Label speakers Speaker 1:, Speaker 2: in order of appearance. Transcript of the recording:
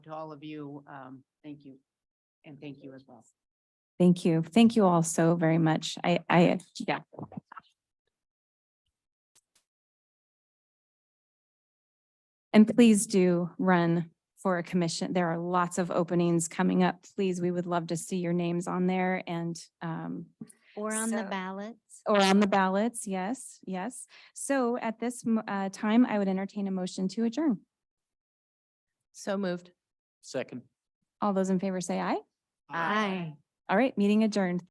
Speaker 1: to all of you. Um, thank you. And thank you as well.
Speaker 2: Thank you. Thank you all so very much. I, I, yeah. And please do run for a commission. There are lots of openings coming up. Please, we would love to see your names on there and, um,
Speaker 3: Or on the
Speaker 2: So-
Speaker 3: ballots.
Speaker 2: or on the ballots. Yes, yes. So at this, mo- uh, time, I would entertain a motion to adjourn.
Speaker 4: So moved.
Speaker 5: Second.
Speaker 2: All those in favor say aye.
Speaker 3: Aye.
Speaker 2: All right, meeting adjourned.